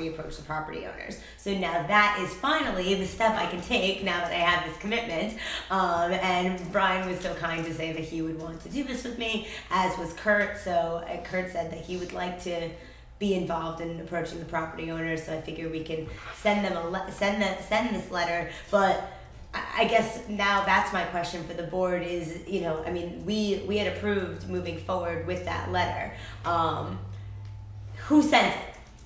we approach the property owners. So now that is finally the step I can take now that I have this commitment. Um, and Brian was so kind to say that he would want to do this with me, as was Kurt. So uh, Kurt said that he would like to be involved in approaching the property owners. So I figure we can send them a le- send them send this letter, but. I I guess now that's my question for the board is, you know, I mean, we, we had approved moving forward with that letter. Um, who sent it?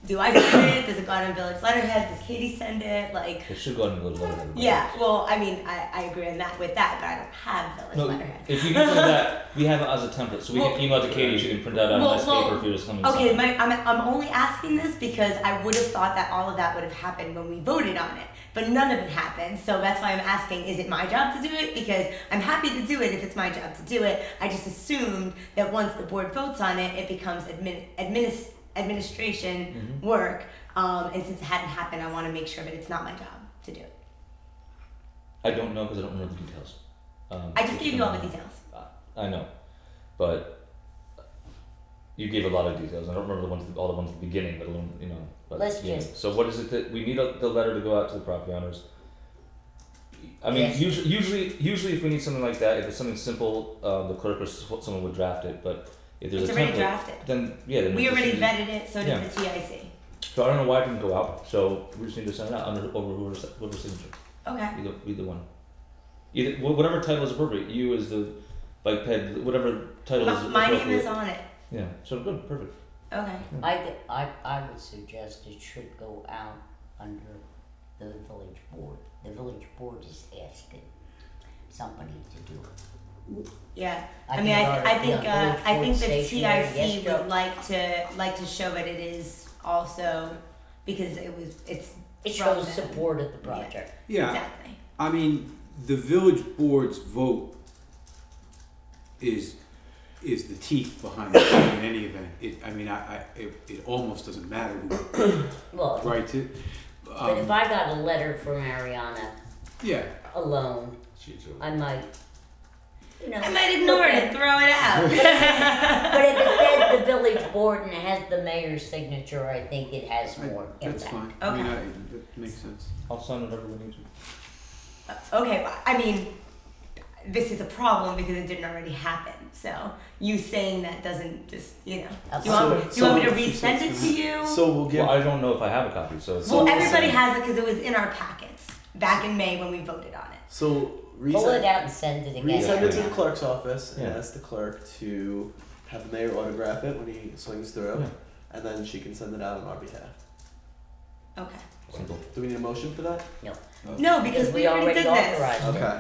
Do I send it? Does it go out on Village Letterhead? Does Katie send it? Like, It should go on Google. Letterhead. yeah, well, I mean, I, I agree on that with that, but I don't have Village No, Letterhead. if you can print that, we have it as a template, so we Well- can email to Katie. She can print that out Well, on nice well, paper for you to come and Okay, sign. my, I'm, I'm only asking this because I would have thought that all of that would have happened when we voted on it, but none of it happened. So that's why I'm asking is it my job to do it? Because I'm happy to do it if it's my job to do it. I just assumed that once the board votes on it, it becomes admin, administ, administration Mm-hmm. work. Um, and since it hadn't happened, I want to make sure that it's not my job to do it. I don't know because I don't remember the details. Um, I just gave you all the details. details. I know, but you gave a lot of details. I don't remember the ones, all the ones at the beginning, but alone, you know. But, Let's you know. just- So what is it that we need a, the letter to go out to the property owners? I mean, Yes. usually, usually, usually, if we need something like that, if it's something simple, um, the clerk or s- someone would draft it. But if there's It's a already template, drafted. then yeah, then We just already need- vetted it, so Yeah. did the TIC. So I don't know why it didn't go out. So we just need to send it out under over whoever's, whoever's signature. Okay. Either either one. Either wh- whatever title is appropriate. You as the bike ped, whatever title My, is. my name appropriate. is on it. Yeah. So good. Perfect. Okay. I, th- I, I would suggest it should go out under the village board. The village board is asking somebody to do it. Yeah. I mean, I, th- I think uh, I think the TIC would like to like to show that it is also because it was it's It from shows them. support of the project. Yeah, exactly I mean, the village board's vote is is the teeth behind it in any event. It, I mean, I, I it, it almost doesn't matter who Well, writes it. but if Um, I got a letter from Ariana yeah, alone, She's I might, you know. I might ignore it and throw it out. But if it says the village board and it has the mayor's signature, I think it has I, more that's impact. fine. I mean, Okay. I, that makes sense. I'll sign whatever we need to. okay, well, I mean, this is a problem because it didn't already happen. So you saying that doesn't just you know. Do you want, do you So- want me to so- resend it to you? So we'll give. Well, I don't know if I have a copy, so it's. well, it's- everybody has it because it was in our packets back in May when we voted on it. so Pull it resend, out and send it again. resend it to the Ariana. clerk's office and Yeah. ask the clerk to have the mayor autograph it when he swings through, Yeah. and then she can send it out on our behalf. Okay. Simple. Do we need a motion for that? No, because we, already, did this. authorized it. Okay.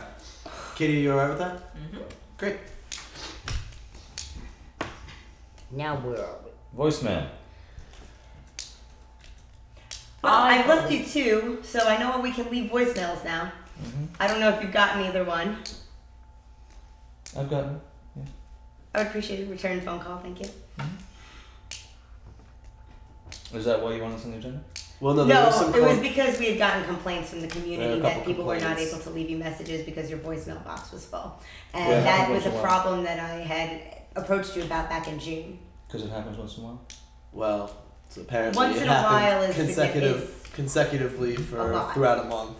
Kitty, you alright with that? Great. Now where are we? Voicemail. Well, I- I've left you two, so I know we can leave voicemails now. Mm-hmm. I don't know if you've gotten either one. I've gotten. I would appreciate a return phone call, thank you. Is that why you want this on the agenda? Well, no, No, there was some. it was com- because we had gotten complaints from the There were community a that couple people were not complaints. able to leave you messages because your voicemail box was full. And Yeah, that it was a was a lot. problem that I had approached you about back in June. Because it happens once in a while. well, so apparently Once it in a happened while is- consecutive is consecutively a for lot. throughout a month.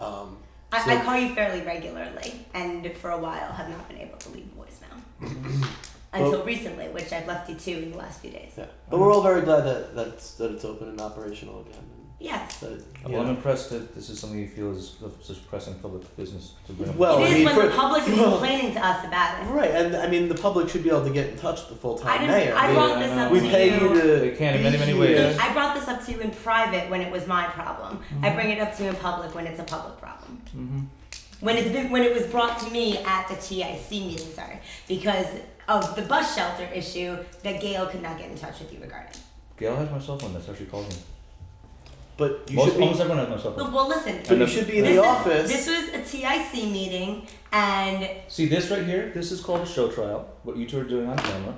Um, I, So- I call you fairly regularly, and for a while have not been able to leave voicemail. Until recently, which I've left you two in the last few days. yeah, but we're all very glad that that's, that it's open and operational again. Yes. And that, it- you Well, I'm know. impressed that this is something you feel is of such pressing public business to bring up. Well, it is Oh, I mean, when the for- public is well- complaining to us about it. Right, and I mean the public should be able to get in touch with the full I time didn't. mayor. I We- brought Yeah, this I up know. we, to pay you you. to. They can in be many, many here. ways. I brought this up to you in private when it was my problem. I bring it up to you in public when it's a public problem. Mm-hmm. When it's been, when it was brought to me at the TIC meeting, sorry, because of the bus shelter issue that Gail could not get in touch with you regarding. Gail has my cell phone. That's how she calls me. But you Most, should be. almost everyone has my cell phone. Well, well listen. But And you the- should be Oh. in this the is- office. This was a TIC meeting, and See this right here? This is called a show trial. What you two are doing on camera,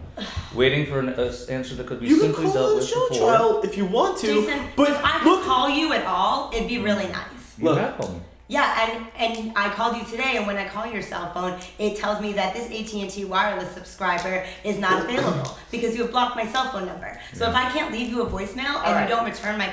waiting for an uh, s- answer that could be you can simply call dealt it a with show before. trial if you want to. Jason, but if I could look, call you at all, it'd be really nice. You Look. have called me. Yeah, and and I called you today, and when I call your cell phone, it tells me that this AT and T wireless subscriber is not available because you have blocked my cell phone number. So if I can't leave you a voicemail and All you right. don't return my